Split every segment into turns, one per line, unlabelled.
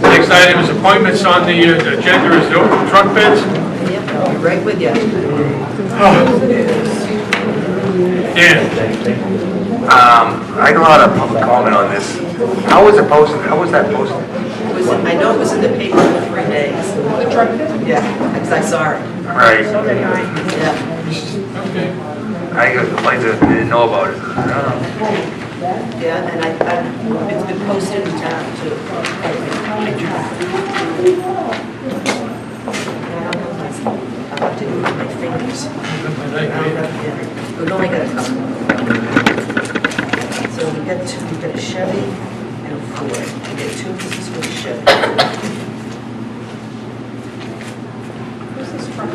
Next item is appointments on the uh, agenda is the open truck bids.
Right with you.
Dan,
Um, I don't know how to public comment on this. How was it posted? How was that posted?
It was, I know it was in the paper for three days. The truck? Yeah, because I saw it,
All right.
yeah,
I got complaints that didn't know about it. I don't know.
yeah, and I, I, it's been posted in town too. I don't know if I- I'll have to do it with my fingers. Yeah, We've only got a couple. So we get two, we get a Chevy and a Ford. We get two pieces for the Chevy.
Who's this from?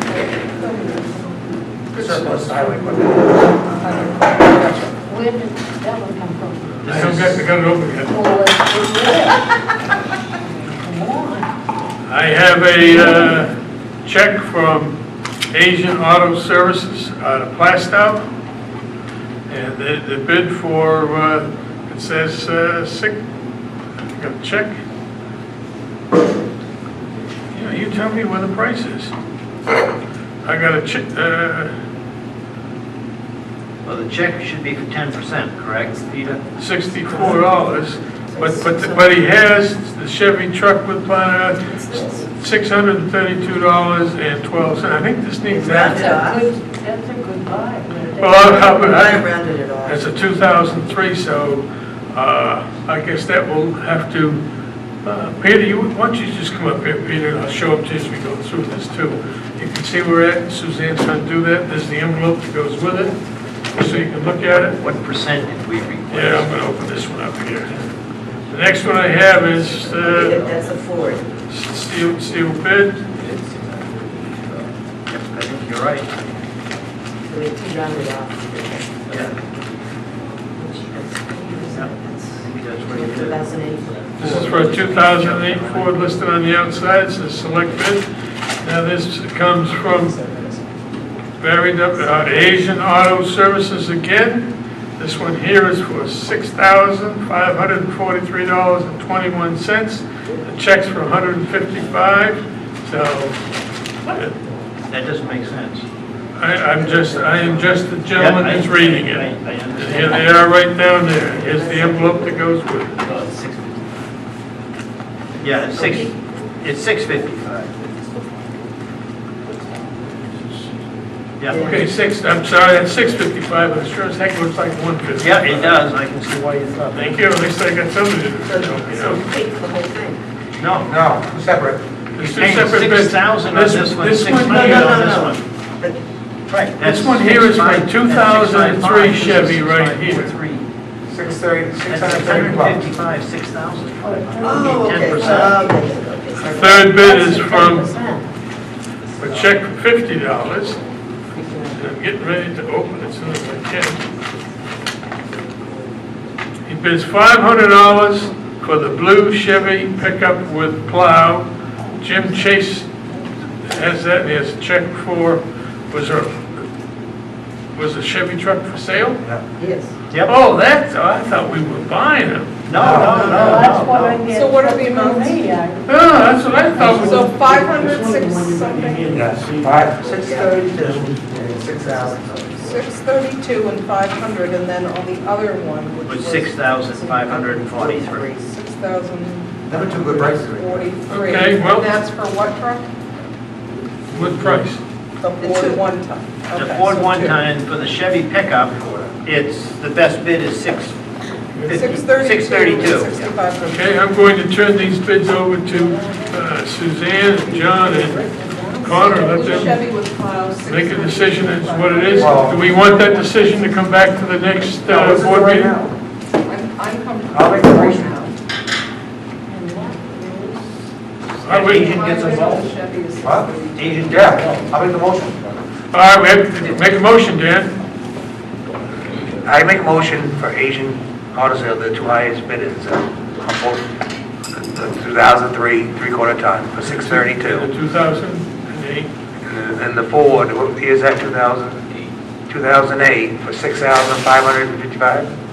Where
Surplus highway equipment.
did that one come from?
you still got, you got it open yet.
Well, it's- Come on.
I have a uh, check from Asian Auto Services out of Plastow. And the the bid for, uh, it says uh, six, I got a check. Yeah, you tell me what the price is. I got a check, uh,
Well, the check should be for ten percent, correct, Peter?
sixty-four dollars, but, but, but he has the Chevy truck with, uh, six hundred and thirty-two dollars and twelve cents. I think this needs
Round
that.
it off.
Good- That's a good buy.
Well, I-
I
I- I-
rounded it off.
it's a 2003, so uh, I guess that will have to, uh, Peter, you, why don't you just come up here, Peter, and I'll show up to you as we go through this too. You can see where at, Suzanne's going to do that, there's the envelope that goes with it, so you can look at it.
What percent did we request?
Yeah, I'm going to open this one up here. The next one I have is
Yeah,
uh,
That's a Ford.
steel, steel bid.
uh, Yep, I think you're right.
So we two rounded off.
Yeah, I think that's what you did.
2008.
This is for a 2008 Ford listed on the outside, says select bid. Now, this comes from varied up, uh, Asian Auto Services again. This one here is for $6,543.21. The check's for 155, so uh,
That doesn't make sense.
I, I'm just, I am just the gentleman
Yeah, I-
that's reading it.
I- I
And Here
understand.
they are right down there. Here's the envelope that goes with it.
Oh, it's 650. Yeah, it's six, it's six fifty-five. Yeah,
Okay, six, I'm sorry, that's six fifty-five, but it sure as heck looks like one fifty.
yeah, it does, I can see why you thought.
Thank you, at least I got somebody to help me
So
out.
you paid for the whole thing.
No,
No, separate.
It's two
paying
separate bids.
6,000 on this one,
This one, no,
6,000
no,
on
no,
this
no.
one.
But
Right.
This one here is my 2003 Chevy right here.
Six thirty, six
That's
hundred thirty bucks.
655, 6,000.
Oh, okay. Oh,
10%.
okay.
Third bid is from, a check for fifty dollars. I'm getting ready to open it soon as I can. He bids five hundred dollars for the blue Chevy pickup with plow. Jim Chase has that, and he has a check for, was there, was a Chevy truck for sale?
Yes.
Yep.
Oh, that's, oh, I thought we were buying them.
No, no,
That's what
no,
I
no, no.
get.
So what are the
from
amounts?
Romania.
Oh, that's what I thought. we-
So five hundred, six something,
Yes, five, six thirty-two, six thousand.
six thirty-two and five hundred, and then on the other one,
It
which
was
was.
6,543.
Six thousand
Never two good prices.
forty-three.
Okay, well-
And that's for what truck?
What price?
The
two.
Ford one ton.
The
Okay,
Ford
so
one
two.
ton for the Chevy pickup, it's, the best bid is 650.
Six thirty-two.
632. yeah.
Sixty-five hundred.
Okay, I'm going to turn these bids over to uh, Suzanne, and John, and Connor, let them
Chevy with plows.
make a decision as what it is. Do we want that decision to come back to the next uh, board
right
meeting?
now. I'll
I'm, I'm comfortable.
make the motion.
Are we-
Asian gets involved.
Chevy is
What?
632.
Asian
Yeah, I'll make the motion.
All right, we have to make a motion, Dan.
I make a motion for Asian Auto Sales, the two highest bidders, uh, on both uh, the 2003 three-quarter ton for
The
632.
2008,
And the- Uh, And the Ford, what year is that, 2000? 2008 for 6,555?